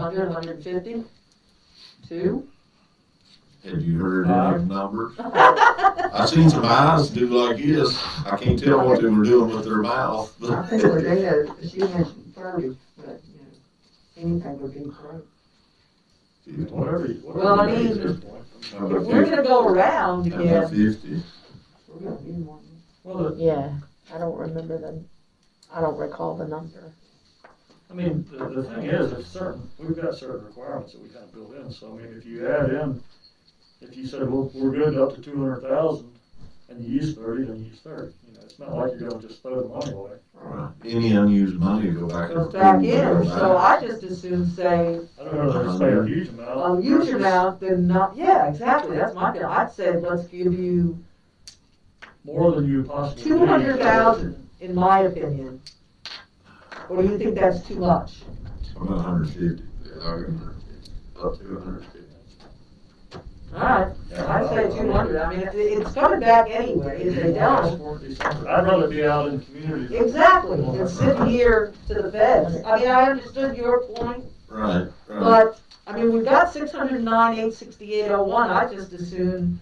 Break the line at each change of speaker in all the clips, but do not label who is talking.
Hundred, hundred fifty? Two?
Have you heard
Uh.
any numbers? I seen some eyes do like this. I can't tell what they were doing with their mouth.
I think we're there, she mentioned thirty, but, you know, anything would be great.
Whatever you.
Well,
whatever
I
you
mean-
do at this point.
If we're gonna go around
Under
again,
fifty.
we're gonna be more.
Well, the-
Yeah, I don't remember the, I don't recall the number.
I mean, the, the thing is, it's certain, we've got certain requirements that we kind of build in, so I mean, if you add in, if you said, well, we're good up to two hundred thousand, and you use thirty, then you use thirty, you know, it's not like you're gonna just throw the money away.
Right. Any unused money go back.
Goes
and
back
go
in, so
back.
I just assume say,
I don't know, if they say a huge amount.
um, use your mouth, then not, yeah, exactly, that's my feeling, I'd say let's give you
More than you possibly. need.
two hundred thousand, in my opinion. Or do you think that's too much?
I'm at hundred fifty. Up to hundred fifty.
Alright, I'd say two hundred, I mean, it- it's coming back anyway, if they don't,
I'd rather be out in the community.
Exactly, and sitting here to the feds. I mean, I understood your point,
Right, right.
but, I mean, we've got six hundred nine, eight sixty-eight oh one, I just assume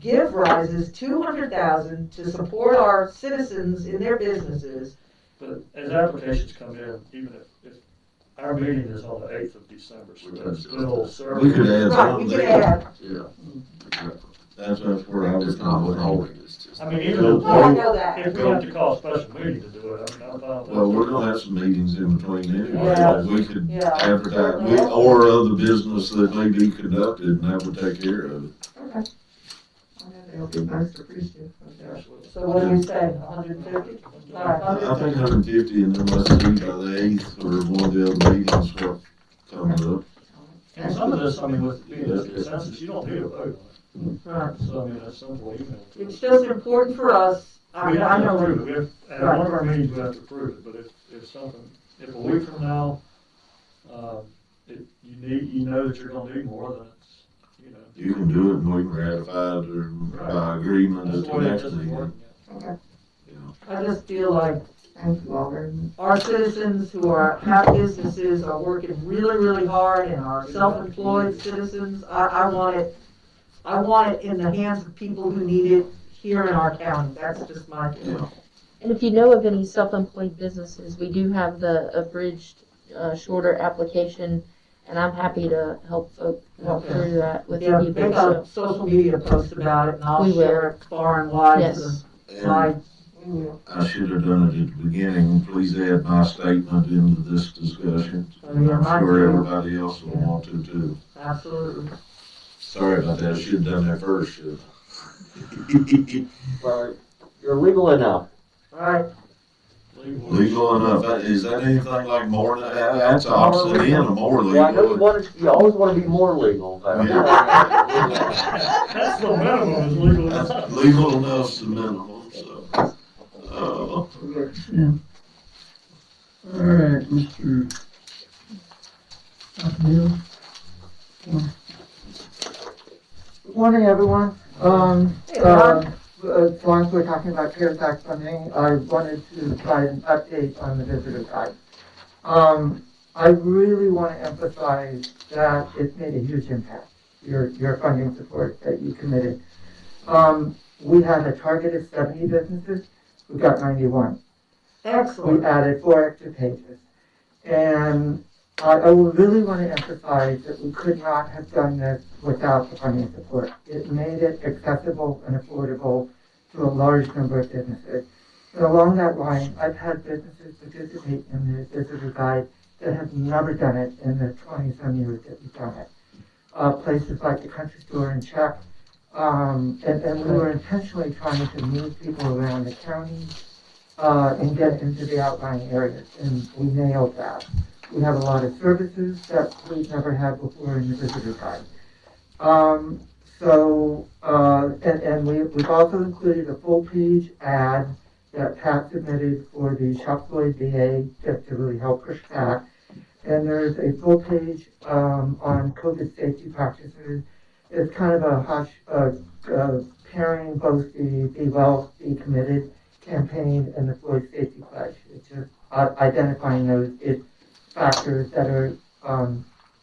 give rises two hundred thousand to support our citizens in their businesses.
But as applications come in, even if, if our meeting is on the eighth of December, so that's still serving.
We could add
Right, we
something
could
there.
add,
Yeah.
That's, that's where I was
It's not
going.
withholding, it's just.
I mean, even
oh, I
if,
know that.
if we have to call a special meeting to do it, I mean, I'm fine with that.
Well, we're gonna have some meetings in between anyway.
Yeah.
We could
Yeah.
advertise, we- or other business that may be conducted and that would take care of it.
It'll be most appreciative.
Absolutely.
So what do you say, hundred and fifty? Alright,
I I think
150.
hundred and fifty and then let's see by the eighth or one of the other meetings what comes up.
And some of this, I mean, with, being this consensus, you don't need a vote on it. So, I mean, that's simple email.
It's just important for us, I
We
mean, I
have to
know,
approve it, we have, at one of our meetings, we have to approve it, but if, if something, if a week from now, um, if you need, you know that you're gonna need more than it's, you know.
You can do it and we can ratify it or by agreement
That's
at
the
the
way it
next
doesn't work.
meeting. you know.
I just feel like
Thank you all very much.
our citizens who are, have businesses are working really, really hard and are self-employed citizens, I, I want it, I want it in the hands of people who need it here in our county, that's just my feeling.
And if you know of any self-employed businesses, we do have the abridged, uh, shorter application, and I'm happy to help folk walk
Okay.
through that with
Yeah,
people,
make a
so,
social media post about it and I'll
We will.
share it far and wide to
yes.
And
my. We will.
I should have done it at the beginning. Please add my statement into this discussion.
Oh,
I'm
yeah, mine
sure
too.
everybody else will want to too.
Absolutely.
Sorry about that. I should have done that first. shouldn't I?
Well, you're legal enough.
Alright,
Legal.
Legal enough. Is that anything like more, than- that- that's opposite end of more
Yeah, I know you
legal.
want to, you always want to be more legal, but.
That's the minimum is legal.
Legal enough's the minimum, so. Uh,
All right, Mr. Hill. Good morning, everyone. Um,
Hey,
uh,
Ron.
as long as we're talking about CARES Act funding, I wanted to provide an update on the visitor guide. Um, I really want to emphasize that it's made a huge impact, your, your funding support that you committed. Um, we had a target of seventy businesses, we got ninety-one we
excellent.
added four extra pages. And I, I would really want to emphasize that we could not have done this without the funding support. It made it accessible and affordable to a large number of businesses. And along that line, I've had businesses participate in the visitor guide that have never done it in the twenty-some years that we've done it. Uh, places like the country store in Czech, um, and, and we were intentionally trying to move people around the county, uh, and get into the outlying areas, and we nailed that. We have a lot of services that we've never had before in the visitor guide. Um, so, uh, and, and we, we've also included a full-page ad that Pat submitted for the Shop Floyd VA, just to really help push that. And there's a full page, um, on COVID safety practices. It's kind of a hush, uh, uh, pairing both the Be Well, Be Committed campaign and the Floyd Safety Pledge. It's just uh, identifying those it- factors that are um,